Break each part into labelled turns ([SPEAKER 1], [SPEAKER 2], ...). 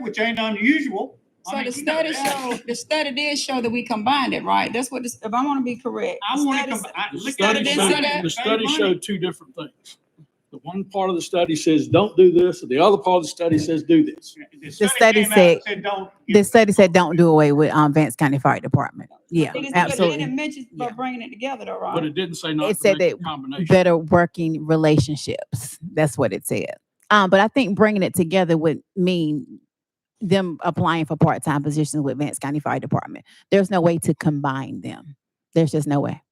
[SPEAKER 1] which ain't unusual. I
[SPEAKER 2] So
[SPEAKER 1] mean,
[SPEAKER 2] the
[SPEAKER 1] you know
[SPEAKER 2] study
[SPEAKER 1] that.
[SPEAKER 2] show, the study did show that we combined it, right? That's what, this- if I want to be correct.
[SPEAKER 1] I
[SPEAKER 2] the
[SPEAKER 1] want to
[SPEAKER 2] study
[SPEAKER 1] come,
[SPEAKER 2] said-
[SPEAKER 1] I
[SPEAKER 3] The
[SPEAKER 1] looked at
[SPEAKER 3] study
[SPEAKER 1] it. and
[SPEAKER 2] didn't
[SPEAKER 3] showed,
[SPEAKER 2] say that.
[SPEAKER 1] said,
[SPEAKER 3] the study
[SPEAKER 1] "Save money."
[SPEAKER 3] showed two different things. The one part of the study says, don't do this, and the other part of the study says, do this.
[SPEAKER 1] The study
[SPEAKER 4] study
[SPEAKER 1] came out and
[SPEAKER 4] said-
[SPEAKER 1] said, don't. you
[SPEAKER 4] The study said don't do away with um Vance County Fire Department.
[SPEAKER 2] It
[SPEAKER 4] Yeah,
[SPEAKER 2] is- but It didn't
[SPEAKER 4] absolutely.
[SPEAKER 2] mention
[SPEAKER 4] Yeah.
[SPEAKER 2] about bringing it together though,
[SPEAKER 3] But
[SPEAKER 2] right?
[SPEAKER 3] it didn't say not
[SPEAKER 4] It
[SPEAKER 3] to
[SPEAKER 4] said
[SPEAKER 3] make a
[SPEAKER 4] that
[SPEAKER 3] combination.
[SPEAKER 4] Better working relationships. That's what it said. Um, but I think bringing it together would mean them applying for part-time positions with Vance County Fire Department. There's no way to combine them. There's just no way.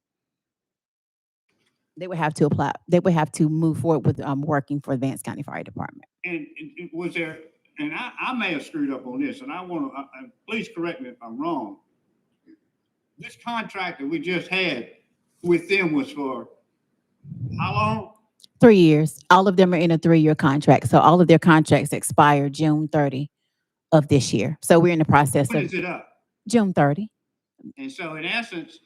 [SPEAKER 4] They would have to apply, they would have to move forward with um working for Vance County Fire Department.
[SPEAKER 1] And and it was there, and I, I may have screwed up on this, and I want to, please correct me if I'm wrong. This contract that we just had with them was for how long?
[SPEAKER 4] Three years. All of them are in a three-year contract. So all of their contracts expire June thirty of this year. So we're in the process
[SPEAKER 1] When
[SPEAKER 4] of
[SPEAKER 1] is it up?
[SPEAKER 4] June thirty.
[SPEAKER 1] And so in essence,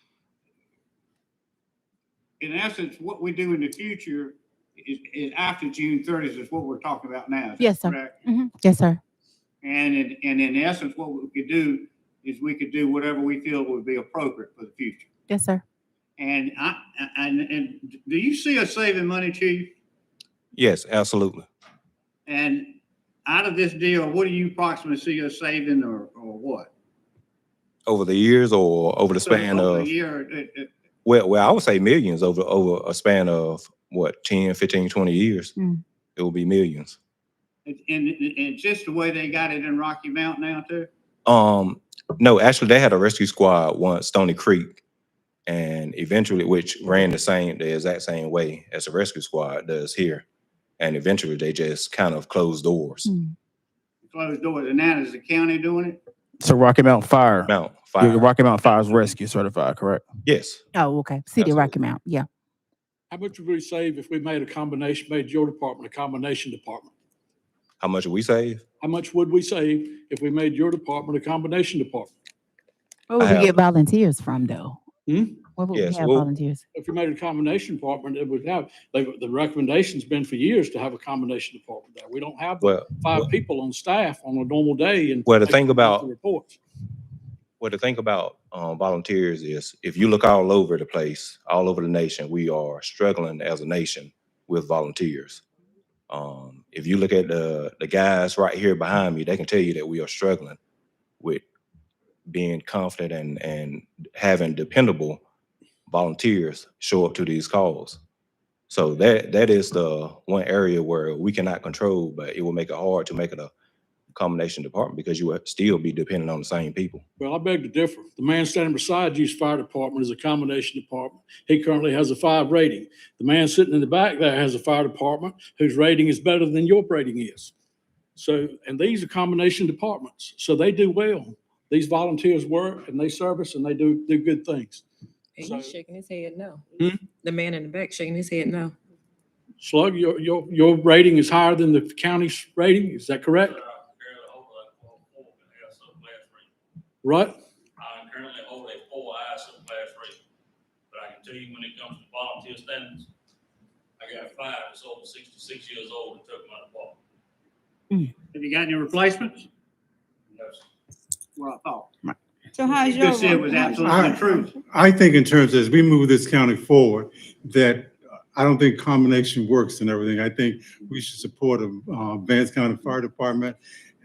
[SPEAKER 1] in essence, what we do in the future is, is after June thirtieth is what we're talking about now. is that
[SPEAKER 4] Yes, sir.
[SPEAKER 1] correct?
[SPEAKER 4] Yes, sir.
[SPEAKER 1] And in, and in essence, what we could do is we could do whatever we feel would be appropriate for the future.
[SPEAKER 4] Yes, sir.
[SPEAKER 1] And I, I- and, and do you see us saving money, chief?
[SPEAKER 5] Yes, absolutely.
[SPEAKER 1] And out of this deal, what do you approximately see us saving or, or what?
[SPEAKER 5] Over the years or over the
[SPEAKER 1] So
[SPEAKER 5] span
[SPEAKER 1] over a
[SPEAKER 5] of,
[SPEAKER 1] Year, it- it-
[SPEAKER 5] well, well, I would say millions over, over a span of what, 10, 15, 20 years?
[SPEAKER 4] Mm.
[SPEAKER 5] It will be millions.
[SPEAKER 1] and, and, and just the way they got it in Rocky Mount now too?
[SPEAKER 5] Um, no, actually, they had a rescue squad once, Stony Creek, and eventually, which ran the same, the exact same way as the rescue squad does here. And eventually, they just kind of closed doors.
[SPEAKER 4] Mm.
[SPEAKER 1] Closed doors, and now is the county doing it?
[SPEAKER 6] So Rocky Mountain Fire,
[SPEAKER 5] Mount
[SPEAKER 6] You're- you're
[SPEAKER 5] Fire,
[SPEAKER 6] Rocky Mountain Fire is rescue certified, correct?
[SPEAKER 5] yes.
[SPEAKER 4] Oh, okay. City of Rocky
[SPEAKER 5] Absolutely.
[SPEAKER 4] Mount. Yeah.
[SPEAKER 3] How much would we save if we made a combination, made your department a combination department?
[SPEAKER 5] How much we save?
[SPEAKER 3] How much would we save if we made your department a combination department?
[SPEAKER 4] Where would
[SPEAKER 5] I
[SPEAKER 4] we
[SPEAKER 5] have-
[SPEAKER 4] get volunteers from though?
[SPEAKER 3] Hmm?
[SPEAKER 4] Where would we have
[SPEAKER 5] Yes, well-
[SPEAKER 4] volunteers?
[SPEAKER 3] If we made a combination department, it would have, they, the recommendation's been for years to have a combination department there. We don't have
[SPEAKER 5] Well,
[SPEAKER 3] five people on staff on a normal day and.
[SPEAKER 5] Well, the
[SPEAKER 3] they
[SPEAKER 5] thing
[SPEAKER 3] can write
[SPEAKER 5] about-
[SPEAKER 3] the Reports.
[SPEAKER 5] Well, the thing about um, volunteers is if you look all over the place, all over the nation, we are struggling as a nation with volunteers. Um, if you look at the, the guys right here behind me, they can tell you that we are struggling with being confident and, and having dependable volunteers show up to these calls. So that that is the one area where we cannot control, but it will make it hard to make it a combination department because you will still be dependent on the same people.
[SPEAKER 3] Well, I beg to differ. The man standing beside you's fire department is a combination department. He currently has a five rating. The man sitting in the back there has a fire department whose rating is better than your rating is. So, and these are combination departments, so they do well. These volunteers work and they service and they do, do good things.
[SPEAKER 7] And
[SPEAKER 3] So-
[SPEAKER 7] He's shaking his head no.
[SPEAKER 3] Hmm?
[SPEAKER 7] The man in the back shaking his head no.
[SPEAKER 3] Slug, your, your, your rating is higher than the county's rating, is that
[SPEAKER 8] I
[SPEAKER 3] correct?
[SPEAKER 8] currently hold a four and have subclass rating.
[SPEAKER 3] Right?
[SPEAKER 8] I currently hold a four I subclass rating. But I can tell you when it comes to volunteer standards, I got five that's over sixty-six years old and took my department.
[SPEAKER 1] Have you got any replacements?
[SPEAKER 8] No, sir.
[SPEAKER 1] Well, I thought.
[SPEAKER 2] So how's your?
[SPEAKER 1] You said it was absolutely
[SPEAKER 9] I-
[SPEAKER 1] true.
[SPEAKER 9] I think in terms, as we move this county forward, that uh, I don't think combination works and everything. I think we should support a uh, Vance County Fire Department.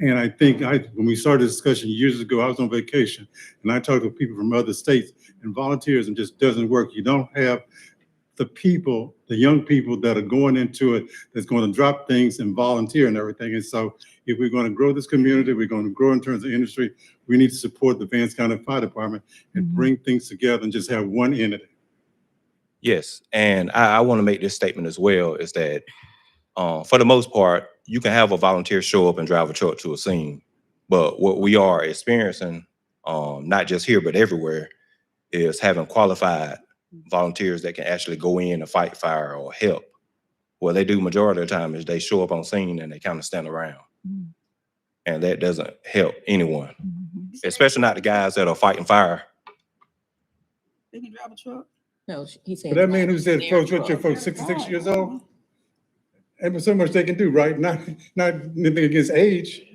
[SPEAKER 9] And I think I, when we started this discussion years ago, I was on vacation and I talked to people from other states and volunteerism just doesn't work. You don't have the people, the young people that are going into it, that's going to drop things and volunteer and everything. And so if we're going to grow this community, we're going to grow in terms of industry, we need to support the Vance County Fire Department and
[SPEAKER 4] Mhm.
[SPEAKER 9] bring things together and just have one entity.
[SPEAKER 5] Yes, and I, I want to make this statement as well, is that, uh, for the most part, you can have a volunteer show up and drive a truck to a scene. But what we are experiencing, um, not just here, but everywhere, is having qualified volunteers that can actually go in and fight fire or help. What they do majority of the time is they show up on scene and they kind of stand around.
[SPEAKER 4] Mm.
[SPEAKER 5] And that doesn't help anyone,
[SPEAKER 4] Mm-hmm.
[SPEAKER 5] especially not the guys that are fighting fire.
[SPEAKER 2] They can drive a truck.
[SPEAKER 7] No, sh- he's saying.
[SPEAKER 9] But that man who said,
[SPEAKER 7] they're
[SPEAKER 9] folks, what, your
[SPEAKER 7] drunk.
[SPEAKER 9] folks sixty-six years old? Ain't but so much they can do, right? Not, not anything against age.